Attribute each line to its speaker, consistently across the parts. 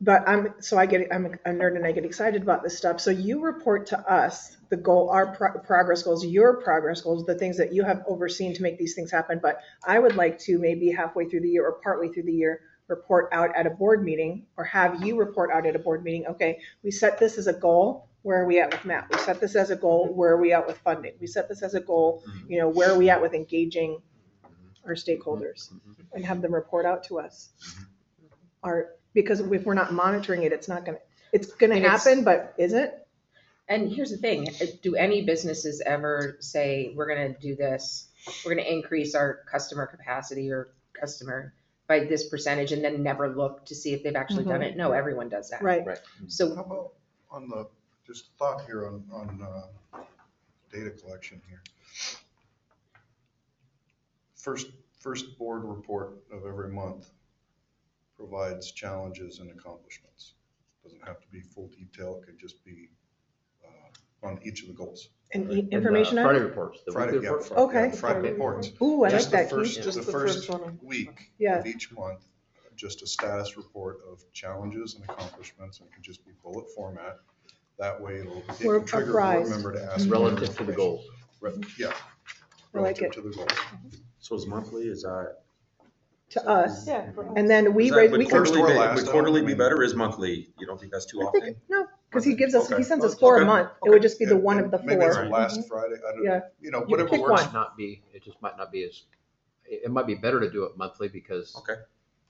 Speaker 1: but I'm, so I get, I'm a nerd and I get excited about this stuff. So you report to us the goal, our pro- progress goals, your progress goals, the things that you have overseen to make these things happen. But I would like to maybe halfway through the year or partway through the year, report out at a board meeting or have you report out at a board meeting. Okay, we set this as a goal. Where are we at with MAP? We set this as a goal. Where are we at with funding? We set this as a goal. You know, where are we at with engaging our stakeholders and have them report out to us. Our, because if we're not monitoring it, it's not gonna, it's gonna
Speaker 2: And it's-
Speaker 1: happen, but is it?
Speaker 2: And here's the thing, uh, do any businesses ever say, we're gonna do this, we're gonna increase our customer capacity or customer by this percentage and then never look to see if they've actually done it? No, everyone does that.
Speaker 1: Right.
Speaker 2: So,
Speaker 3: How about on the, just a thought here on, on, uh, data collection here. First, first board report of every month provides challenges and accomplishments. Doesn't have to be full detail, it could just be, uh, on each of the goals.
Speaker 1: And
Speaker 4: Right.
Speaker 1: e- information
Speaker 4: uh,
Speaker 1: on
Speaker 4: Friday
Speaker 1: it?
Speaker 4: reports. the
Speaker 3: Friday,
Speaker 4: weekly
Speaker 3: yeah,
Speaker 4: reports.
Speaker 3: Friday, yeah,
Speaker 1: Okay.
Speaker 3: Friday reports.
Speaker 1: Ooh, I like
Speaker 3: Just the
Speaker 1: that. Keith.
Speaker 3: first, just the first
Speaker 1: one.
Speaker 3: week
Speaker 1: Yeah,
Speaker 3: of each month, just a status report of challenges and accomplishments, and it can just be bullet format. That way it'll, it
Speaker 1: We're
Speaker 3: can trigger a board
Speaker 1: apprised.
Speaker 3: member to ask. for
Speaker 4: Mm-hmm. Relative to the
Speaker 3: information.
Speaker 4: goals.
Speaker 3: Re- Yeah.
Speaker 1: I like
Speaker 3: Relative
Speaker 1: it.
Speaker 3: to the goals.
Speaker 5: So it's monthly, is that?
Speaker 1: to us.
Speaker 6: Yeah.
Speaker 1: And then we
Speaker 5: Is that-
Speaker 1: raise,
Speaker 5: would
Speaker 1: we can,
Speaker 3: first- First
Speaker 5: quarterly
Speaker 3: or
Speaker 5: be-
Speaker 3: last,
Speaker 5: Would
Speaker 3: I
Speaker 5: quarterly
Speaker 3: don't
Speaker 5: be
Speaker 3: know.
Speaker 5: better is monthly? You don't think that's too
Speaker 1: Mm-hmm. I think,
Speaker 5: often?
Speaker 1: no, because he gives us, he
Speaker 5: Okay.
Speaker 1: sends us four a
Speaker 5: Okay.
Speaker 1: month. It would just be the
Speaker 3: And-
Speaker 1: one
Speaker 3: and
Speaker 1: of the
Speaker 3: Maybe it's
Speaker 1: four. Mm-hmm.
Speaker 3: the last Friday, I
Speaker 1: Yeah.
Speaker 3: don't, you know,
Speaker 1: You
Speaker 3: whatever
Speaker 1: pick
Speaker 3: works.
Speaker 1: one.
Speaker 4: Might Not be, it just might not be as, it, it might be better to do it monthly because
Speaker 5: Okay.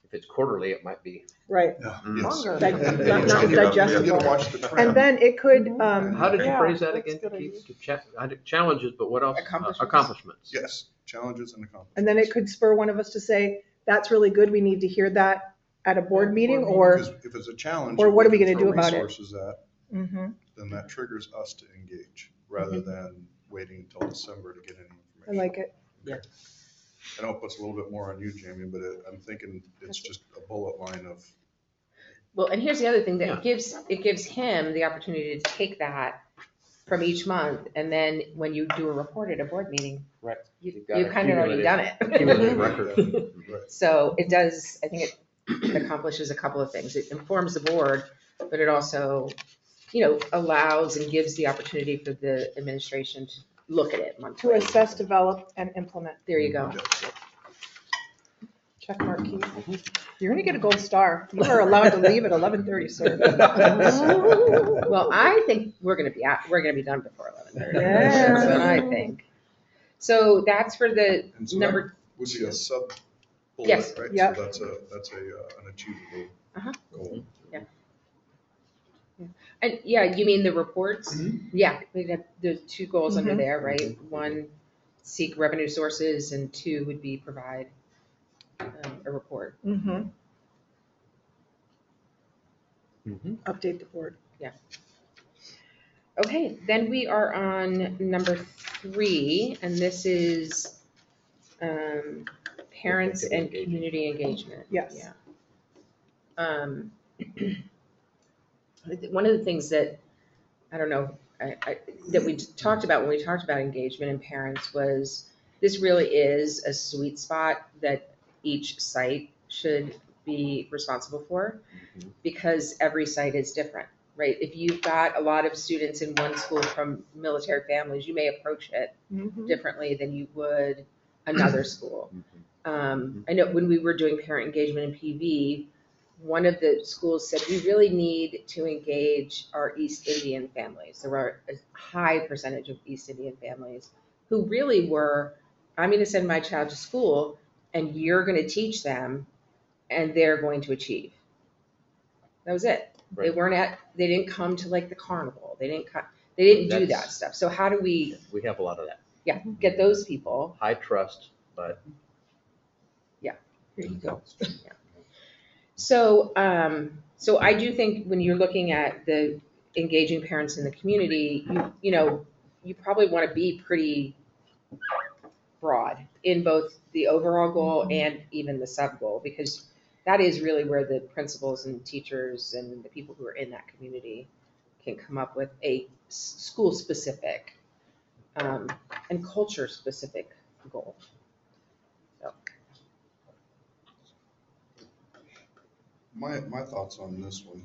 Speaker 4: if it's quarterly, it might be.
Speaker 1: Right.
Speaker 3: Yeah,
Speaker 4: Mm-hmm.
Speaker 5: Mm.
Speaker 3: yes.
Speaker 6: Longer.
Speaker 3: And-
Speaker 1: Like,
Speaker 3: and-
Speaker 5: not-
Speaker 3: and
Speaker 5: not
Speaker 3: you gotta-
Speaker 5: digestible.
Speaker 3: You gotta watch the trend.
Speaker 1: And then it could,
Speaker 6: Mhm.
Speaker 1: um,
Speaker 4: How did you
Speaker 6: Yeah,
Speaker 4: phrase that
Speaker 6: that's
Speaker 4: again?
Speaker 6: good
Speaker 4: Keith?
Speaker 6: idea.
Speaker 4: To cha- I did- Challenges, but what else? Uh,
Speaker 2: Accomplishments.
Speaker 4: Accomplishments.
Speaker 3: Yes, challenges and accomplishments.
Speaker 1: and then it could spur one of us to say, that's really good. We need to hear that at a board meeting or,
Speaker 3: Because If it's a challenge.
Speaker 1: or
Speaker 3: and
Speaker 1: what are we
Speaker 3: can
Speaker 1: gonna
Speaker 3: throw
Speaker 1: do about it?
Speaker 3: Resources at,
Speaker 1: Mhm.
Speaker 3: then that triggers us to engage rather than waiting until December to get any
Speaker 1: Mm-hmm. I
Speaker 3: information.
Speaker 1: like it.
Speaker 3: I know it puts a little bit more on you, Jamie, but it- I'm thinking it's just a bullet line of,
Speaker 2: well, and here's the other thing, that
Speaker 4: Yeah.
Speaker 2: it gives, it gives him the opportunity to take that from each month, and then when you do a report at a board meeting.
Speaker 4: Right.
Speaker 2: You,
Speaker 4: You've got
Speaker 2: you've kind of already
Speaker 4: accumulated-
Speaker 2: done it.
Speaker 4: Accumulated record.
Speaker 3: right,
Speaker 2: So it does, I think it accomplishes a couple of things. It informs the board, but it also, you know, allows and gives the opportunity for the administration to look at it
Speaker 1: To
Speaker 2: monthly.
Speaker 1: assess, develop and implement.
Speaker 2: There you go.
Speaker 1: Check mark, Keith. You're gonna get a gold star. You are allowed to leave at eleven thirty, sir.
Speaker 2: Well, I think we're gonna be, out. we're gonna be done before eleven thirty.
Speaker 1: Yeah.
Speaker 2: That's what I think. So that's for the
Speaker 3: and so that
Speaker 2: number,
Speaker 3: would be a sub bullet,
Speaker 2: Yes,
Speaker 3: right?
Speaker 1: yep.
Speaker 3: So that's a, that's a, uh, an achievable
Speaker 2: Uh-huh.
Speaker 3: goal.
Speaker 2: and yeah, you mean the reports? Yeah, we have the two goals under
Speaker 1: Mhm.
Speaker 2: there, right? One, seek revenue sources, and two would be provide um, a report.
Speaker 1: Mhm.
Speaker 4: Mhm.
Speaker 1: Update the board.
Speaker 2: Okay, then we are on number three, and this is um, parents and
Speaker 4: Community engagement.
Speaker 2: community engagement.
Speaker 1: Yes.
Speaker 2: Yeah. Um, I think One of the things that, I don't know, I, I, that we talked about when we talked about engagement in parents was this really is a sweet spot that each site should be responsible for
Speaker 4: Mhm.
Speaker 2: because every site is different right? If you've got a lot of students in one school from military families, you may approach it
Speaker 4: Mm-hmm.
Speaker 1: Mhm.
Speaker 2: differently than you would another school.
Speaker 4: Mm-hmm.
Speaker 2: Um, I know when we were doing parent engagement in PV, one of the schools said, we really need to engage our East Indian families. There were a high percentage of East Indian families who really were, I'm gonna send my child to school and you're gonna teach them and they're going to achieve. That was it. They
Speaker 4: Right.
Speaker 2: weren't at, they didn't come to like the carnival. They didn't come, they didn't do that
Speaker 4: That's-
Speaker 2: stuff. So how do we,
Speaker 4: We have a lot of that.
Speaker 2: yeah, get those people?
Speaker 4: High trust, but
Speaker 2: Here you go. So, um, so I do think when you're looking at the engaging parents in the community, you, you know, you probably want to be pretty broad in both the overall goal and even the sub goal, because that is really where the principals and teachers and the people who are in that community can come up with a s- school-specific, um, and culture-specific goal.
Speaker 3: My, my thoughts on this one